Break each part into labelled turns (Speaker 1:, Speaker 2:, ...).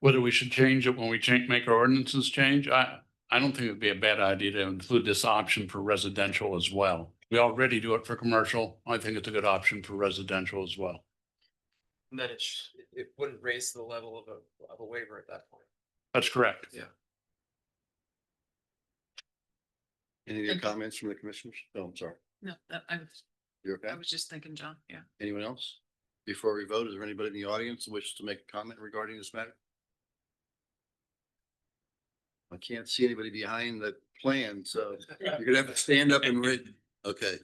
Speaker 1: Whether we should change it when we change, make our ordinances change, I, I don't think it'd be a bad idea to include this option for residential as well. We already do it for commercial. I think it's a good option for residential as well.
Speaker 2: And then it, sh- it- it wouldn't raise the level of a, of a waiver at that point.
Speaker 1: That's correct.
Speaker 3: Any
Speaker 4: Thank
Speaker 3: other
Speaker 4: you.
Speaker 3: comments from the commissioners? No, I'm sorry.
Speaker 4: No, that, I was,
Speaker 3: You're
Speaker 4: I
Speaker 3: okay?
Speaker 4: was just thinking, John, yeah.
Speaker 3: Anyone else? Before we vote, is there anybody in the audience who wishes to make a comment regarding this matter? I can't see anybody behind the plan, so you're gonna have to stand up and read. Okay.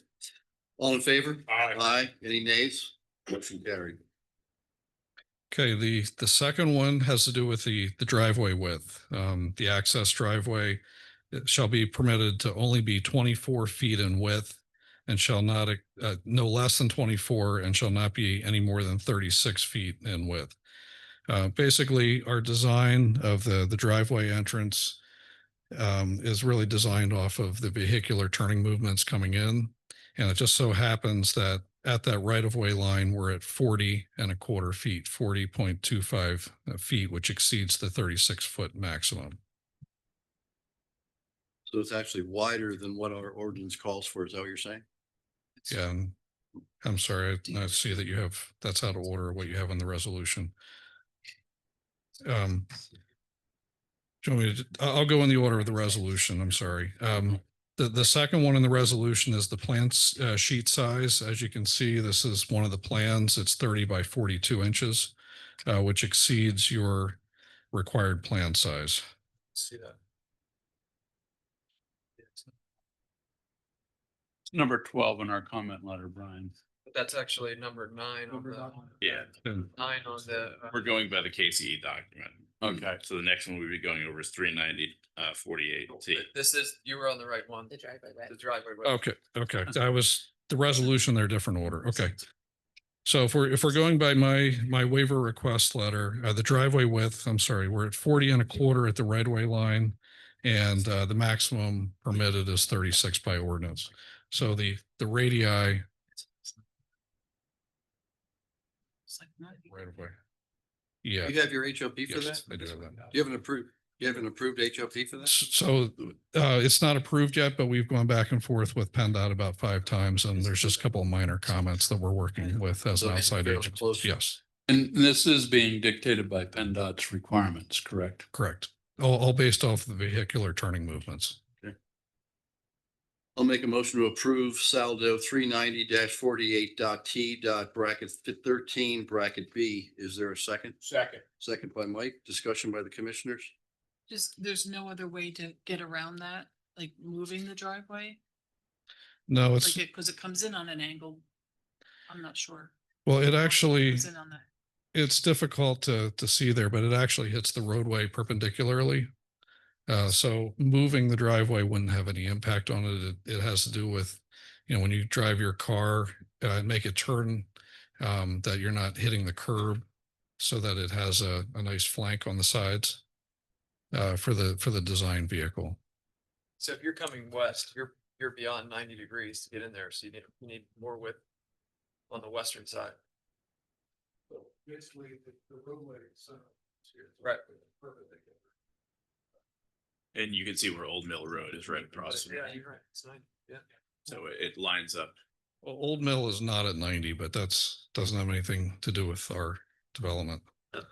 Speaker 3: All in favor? Aye. Any nays? Motion carried.
Speaker 5: Okay, the, the second one has to do with the, the driveway width. Um, the access driveway shall be permitted to only be twenty-four feet in width and shall not, uh, no less than twenty-four and shall not be any more than thirty-six feet in width. Uh, basically, our design of the, the driveway entrance um, is really designed off of the vehicular turning movements coming in. And it just so happens that at that right of way line, we're at forty and a quarter feet, forty point two five uh, feet, which exceeds the thirty six foot maximum.
Speaker 3: So it's actually wider than what our ordinance calls for. Is that what you're saying?
Speaker 5: Yeah, And I'm sorry, I- I see that you have, that's out of order, what you have on the resolution. Um. Do you want me to, I'll, I'll go in the order of the resolution, I'm sorry. Um, the, the second one in the resolution is the plant's uh, sheet size. As you can see, this is one of the plans. It's thirty by forty-two inches, uh, which exceeds your required plan size.
Speaker 2: See that?
Speaker 1: It's Number twelve in our comment letter, Brian.
Speaker 2: But that's actually number nine on the,
Speaker 6: Yeah,
Speaker 5: And
Speaker 2: nine on the. uh,
Speaker 6: we're going by the KCE document.
Speaker 1: Okay.
Speaker 6: So the next one we'll be going over is three ninety, uh, forty-eight T.
Speaker 2: This is, you were on the right one,
Speaker 4: The driveway
Speaker 2: the driveway. width.
Speaker 5: Okay, okay. I was, the resolution, they're different order. Okay. So if we're, if we're going by my, my waiver request letter, uh, the driveway width, I'm sorry, we're at forty and a quarter at the right way line. And, uh, the maximum permitted is thirty-six by ordinance. So the, the radii
Speaker 4: It's like, no, you-
Speaker 5: right away. Yeah.
Speaker 3: You have your HOP for that?
Speaker 5: yes, I do have that.
Speaker 3: Do you have an approved, you have an approved HOP for that?
Speaker 5: S- So uh, it's not approved yet, but we've gone back and forth with PennDOT about five times and there's just a couple of minor comments that we're working with as an
Speaker 3: So it's
Speaker 5: outside
Speaker 3: fairly
Speaker 5: agent.
Speaker 3: close.
Speaker 5: Yes,
Speaker 1: And this is being dictated by PennDOT's requirements, correct?
Speaker 5: correct. All, all based off the vehicular turning movements.
Speaker 3: I'll make a motion to approve saldo three ninety 48t bracket thirteen bracket B. Is there a second?
Speaker 6: Second.
Speaker 3: Second by Mike, discussion by the commissioners.
Speaker 4: Just, there's no other way to get around that, like moving the driveway,
Speaker 5: No,
Speaker 4: like
Speaker 5: it's,
Speaker 4: it, cause it comes in on an angle. I'm not sure.
Speaker 5: well, it
Speaker 4: It
Speaker 5: actually,
Speaker 4: comes in on that.
Speaker 5: it's difficult to, to see there, but it actually hits the roadway perpendicularly. Uh, so moving the driveway wouldn't have any impact on it. It, it has to do with, you know, when you drive your car, uh, and make a turn, um, that you're not hitting the curb so that it has a, a nice flank on the sides, uh, for the, for the design vehicle.
Speaker 2: So if you're coming west, you're, you're beyond ninety degrees to get in there, so you need, you need more width on the western side.
Speaker 7: basically the, the roadway itself.
Speaker 2: Right.
Speaker 6: And you can see where Old Mill Road is right across. from
Speaker 2: Yeah,
Speaker 6: that.
Speaker 2: you're right, it's nine, yeah.
Speaker 6: So it- it lines up.
Speaker 5: Well, Old Mill is not at ninety, but that's, doesn't have anything to do with our development.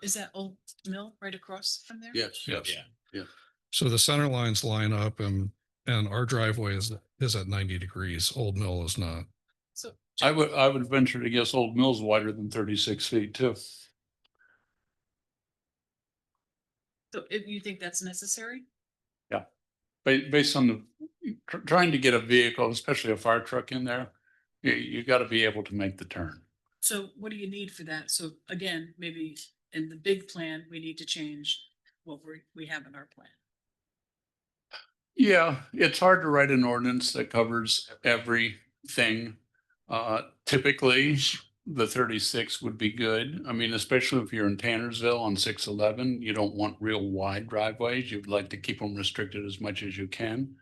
Speaker 4: Is that old mill right across from there?
Speaker 3: Yes.
Speaker 5: Yes.
Speaker 6: Yeah.
Speaker 5: So the center lines line up and, and our driveway is, is at ninety degrees. Old Mill is not.
Speaker 4: So.
Speaker 1: I would, I would venture to guess Old Mill's wider than thirty-six feet too.
Speaker 4: So if you think that's necessary?
Speaker 1: Ba- based on the, tr- trying to get a vehicle, especially a fire truck in there, you, you gotta be able to make the turn.
Speaker 4: So what do you need for that? So again, maybe in the big plan, we need to change what we, we have in our plan.
Speaker 1: Yeah, it's hard to write an ordinance that covers everything. Uh, typically, the thirty-six would be good. I mean, especially if you're in Tannersville on six eleven, you don't want real wide driveways. You'd like to keep them restricted as much as you can.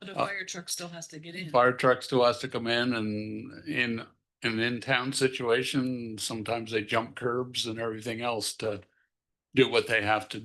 Speaker 4: But a
Speaker 1: Uh,
Speaker 4: fire truck still has to get in.
Speaker 1: Fire trucks still has to come in and in an in-town situation, sometimes they jump curbs and everything else to do what they have to